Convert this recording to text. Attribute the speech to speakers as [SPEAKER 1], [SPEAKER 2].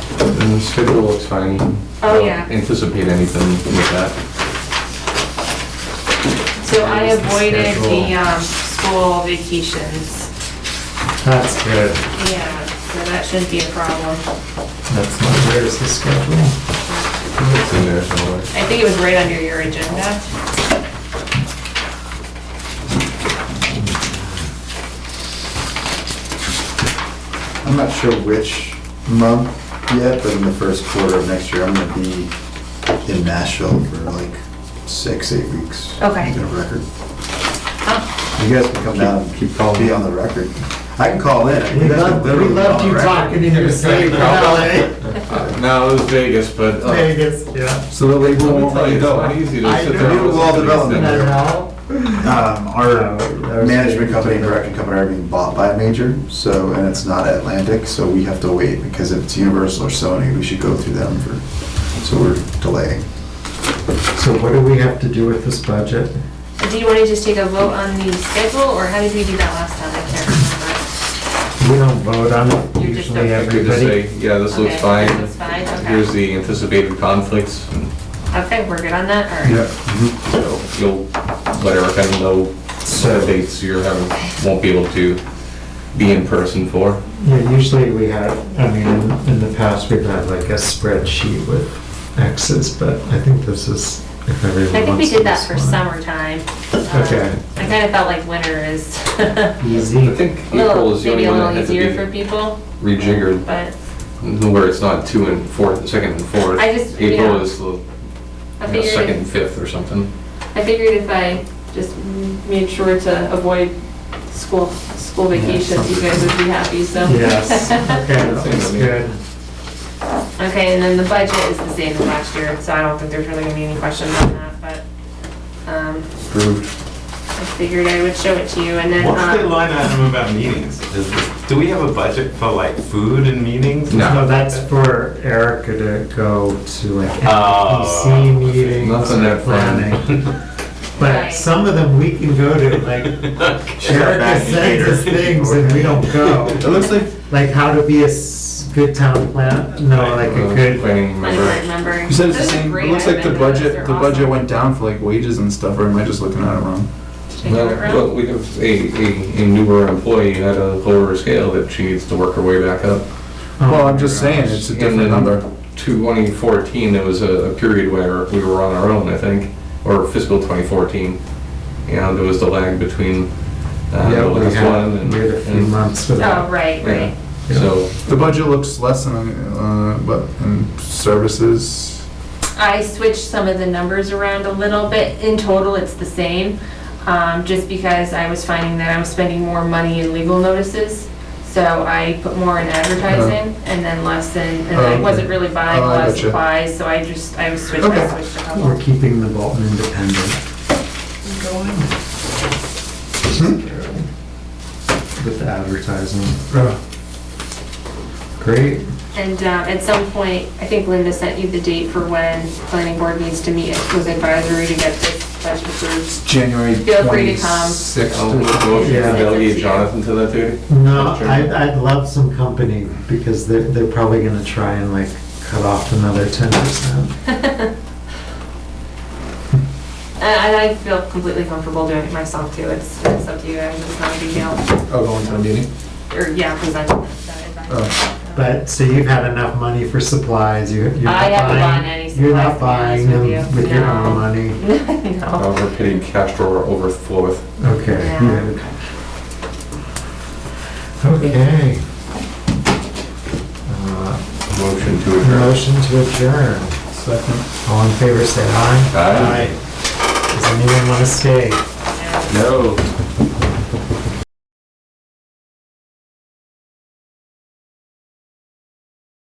[SPEAKER 1] And the schedule looks fine.
[SPEAKER 2] Oh,
[SPEAKER 1] I don't
[SPEAKER 2] yeah.
[SPEAKER 1] Anticipate anything with that.
[SPEAKER 2] So I
[SPEAKER 3] There's the
[SPEAKER 2] avoided the,
[SPEAKER 3] schedule.
[SPEAKER 2] um, school vacations.
[SPEAKER 3] That's good.
[SPEAKER 2] Yeah, so that shouldn't be a problem.
[SPEAKER 3] That's not, where's the schedule?
[SPEAKER 1] It's in there somewhere.
[SPEAKER 2] I think it was right under your agenda.
[SPEAKER 4] I'm not sure which month yet, but in the first quarter of next year, I'm gonna be in Nashville for like six, eight weeks.
[SPEAKER 2] Okay.
[SPEAKER 4] Get a record.
[SPEAKER 2] Oh,
[SPEAKER 4] You guys can come down, and
[SPEAKER 1] keep calling.
[SPEAKER 4] Be on the record. I can call in. You guys can literally be on the record.
[SPEAKER 3] in your
[SPEAKER 1] sleep, Uh, No, it was Vegas, but. uh,
[SPEAKER 3] eh? Vegas, yeah.
[SPEAKER 4] So the label
[SPEAKER 1] Let me
[SPEAKER 4] won't
[SPEAKER 1] tell
[SPEAKER 4] let
[SPEAKER 1] you,
[SPEAKER 4] you
[SPEAKER 1] it's not
[SPEAKER 4] go.
[SPEAKER 1] easy to
[SPEAKER 3] I
[SPEAKER 1] sit
[SPEAKER 3] know.
[SPEAKER 1] there. and
[SPEAKER 4] New wall
[SPEAKER 1] listen to these
[SPEAKER 4] development.
[SPEAKER 1] things.
[SPEAKER 4] Um,
[SPEAKER 1] Uh,
[SPEAKER 4] our management company and production company are being bought by a major, so, and it's not Atlantic, so we have to wait, because if it's Universal or Sony, we should go through them for, so we're delaying.
[SPEAKER 3] So what do we have to do with this budget?
[SPEAKER 2] do you want to just take a vote on the schedule, or how did we do that last time? I can't remember.
[SPEAKER 3] We don't vote on it,
[SPEAKER 2] You're just
[SPEAKER 3] usually
[SPEAKER 2] a-
[SPEAKER 1] I could just
[SPEAKER 3] everybody.
[SPEAKER 1] say, yeah, this looks
[SPEAKER 2] Okay,
[SPEAKER 1] fine.
[SPEAKER 2] this looks fine, okay.
[SPEAKER 1] Here's the anticipated conflicts, and
[SPEAKER 2] Okay, we're good on that, all right.
[SPEAKER 1] so you'll let Erica know
[SPEAKER 3] So-
[SPEAKER 1] what dates you're having, won't be able to be in person for.
[SPEAKER 3] Yeah, usually we have, I mean, in- in the past, we've had like a spreadsheet with X's, but I think this is, if
[SPEAKER 2] I
[SPEAKER 3] everyone
[SPEAKER 2] think
[SPEAKER 3] wants
[SPEAKER 2] we
[SPEAKER 3] to
[SPEAKER 2] did that for
[SPEAKER 3] just wanna-
[SPEAKER 2] summertime. Um,
[SPEAKER 3] Okay.
[SPEAKER 2] I kind of felt like winter is a
[SPEAKER 3] Easy.
[SPEAKER 1] I think April
[SPEAKER 2] little,
[SPEAKER 1] is the
[SPEAKER 2] maybe
[SPEAKER 1] only
[SPEAKER 2] a
[SPEAKER 1] one that
[SPEAKER 2] little
[SPEAKER 1] had
[SPEAKER 2] easier for
[SPEAKER 1] to be
[SPEAKER 2] people,
[SPEAKER 1] rejiggered,
[SPEAKER 2] but
[SPEAKER 1] where it's not two and fourth, second and fourth.
[SPEAKER 2] I just-
[SPEAKER 1] April
[SPEAKER 2] yeah.
[SPEAKER 1] is the you
[SPEAKER 2] I
[SPEAKER 1] know, second
[SPEAKER 2] figured,
[SPEAKER 1] and fifth or something.
[SPEAKER 2] I figured if I just made sure to avoid school, school vacations, you guys would be happy, so.
[SPEAKER 3] Yes, okay, that's good.
[SPEAKER 2] Okay, and then the budget is the same as last year, so I don't think there's really gonna be any questions on that, but, um,
[SPEAKER 1] Approved.
[SPEAKER 2] I figured I would show it to you, and then,
[SPEAKER 5] What's the
[SPEAKER 2] um,
[SPEAKER 5] line item about meetings? Is- Do we have a budget for like food and meetings? and
[SPEAKER 1] No.
[SPEAKER 5] stuff
[SPEAKER 3] No,
[SPEAKER 5] like
[SPEAKER 3] that's
[SPEAKER 5] that?
[SPEAKER 3] for Erica to go to like
[SPEAKER 5] Oh.
[SPEAKER 3] NPC meetings
[SPEAKER 1] Nothing
[SPEAKER 3] or
[SPEAKER 1] that fun.
[SPEAKER 3] planning. But
[SPEAKER 2] Right.
[SPEAKER 3] some of them we can go to, like Erica
[SPEAKER 4] back
[SPEAKER 3] sends us
[SPEAKER 4] catered.
[SPEAKER 3] things and we don't
[SPEAKER 4] It
[SPEAKER 3] go.
[SPEAKER 4] looks like
[SPEAKER 3] Like how to be a s- good town plan, no, like a good,
[SPEAKER 1] Planning
[SPEAKER 2] I
[SPEAKER 1] member.
[SPEAKER 2] can't remember.
[SPEAKER 4] You said it's the
[SPEAKER 2] Those are
[SPEAKER 4] same,
[SPEAKER 2] great.
[SPEAKER 4] it looks like the
[SPEAKER 2] I've been to those.
[SPEAKER 4] budget,
[SPEAKER 2] They're
[SPEAKER 4] the budget
[SPEAKER 2] awesome.
[SPEAKER 4] went down for like wages and stuff, or am I just looking at it wrong?
[SPEAKER 2] Did I do it
[SPEAKER 1] Well,
[SPEAKER 2] wrong?
[SPEAKER 1] but we have a, a, a newer employee at a lower scale that she needs to work her way back up.
[SPEAKER 4] Well,
[SPEAKER 3] um,
[SPEAKER 4] I'm just saying, it's
[SPEAKER 3] uh,
[SPEAKER 4] a
[SPEAKER 1] And then
[SPEAKER 4] different number.
[SPEAKER 1] 2014, there was a, a period where we were on our own, I think, or fiscal 2014. You know, there was the lag between uh,
[SPEAKER 3] yeah,
[SPEAKER 1] the
[SPEAKER 3] we
[SPEAKER 1] last one
[SPEAKER 3] had,
[SPEAKER 1] and.
[SPEAKER 3] we had a few
[SPEAKER 1] and-
[SPEAKER 3] months for
[SPEAKER 2] Oh,
[SPEAKER 3] that.
[SPEAKER 2] right,
[SPEAKER 1] Yeah,
[SPEAKER 2] right.
[SPEAKER 1] so,
[SPEAKER 4] The budget looks less than, uh, but, and services,
[SPEAKER 2] I switched some of the numbers around a little bit. In total, it's the same, um, just because I was finding that I'm spending more money in legal notices. So I put more in advertising and then less in, and I
[SPEAKER 4] Uh-huh. Okay.
[SPEAKER 2] wasn't really buying a
[SPEAKER 4] Oh, I
[SPEAKER 2] lot of
[SPEAKER 4] gotcha.
[SPEAKER 2] supplies, so I just, I was switched,
[SPEAKER 4] Okay.
[SPEAKER 2] I switched a
[SPEAKER 3] We're
[SPEAKER 2] couple.
[SPEAKER 3] keeping the Bolton independent. With the advertising. Great.
[SPEAKER 2] And, um, at some point, I think Linda sent you the date for when planning board needs to meet with advisory to get this budget approved.
[SPEAKER 4] it's January
[SPEAKER 2] Feel free to come.
[SPEAKER 4] twenty-sixth. Oh,
[SPEAKER 1] I'll make a motion to
[SPEAKER 3] Yeah.
[SPEAKER 1] delegate Jonathan to that duty.
[SPEAKER 3] No,
[SPEAKER 1] Sure.
[SPEAKER 3] I'd, I'd love some company because they're, they're probably gonna try and like cut off another ten percent.
[SPEAKER 2] And I feel completely comfortable doing it myself too. It's, it's up to you guys. It's not a big deal.
[SPEAKER 4] Oh, going to a meeting?
[SPEAKER 2] Or, yeah, presenting that advice.
[SPEAKER 4] Oh.
[SPEAKER 3] But, so you've had enough money for supplies, you, you're
[SPEAKER 2] I
[SPEAKER 3] not buying.
[SPEAKER 2] haven't bought any
[SPEAKER 3] You're not
[SPEAKER 2] supplies, to
[SPEAKER 3] buying
[SPEAKER 2] be
[SPEAKER 3] them
[SPEAKER 2] honest with you.
[SPEAKER 3] with your
[SPEAKER 2] No.
[SPEAKER 3] own money.
[SPEAKER 2] No.
[SPEAKER 1] Our petty cash drawer overfloweth.
[SPEAKER 3] Okay,
[SPEAKER 2] Yeah.
[SPEAKER 3] good. Okay. Uh,
[SPEAKER 1] Motion to adjourn.
[SPEAKER 3] Motion to adjourn.
[SPEAKER 4] Second.
[SPEAKER 3] All in favor, say aye.
[SPEAKER 1] Aye.
[SPEAKER 3] Does anyone want to stay?
[SPEAKER 1] No.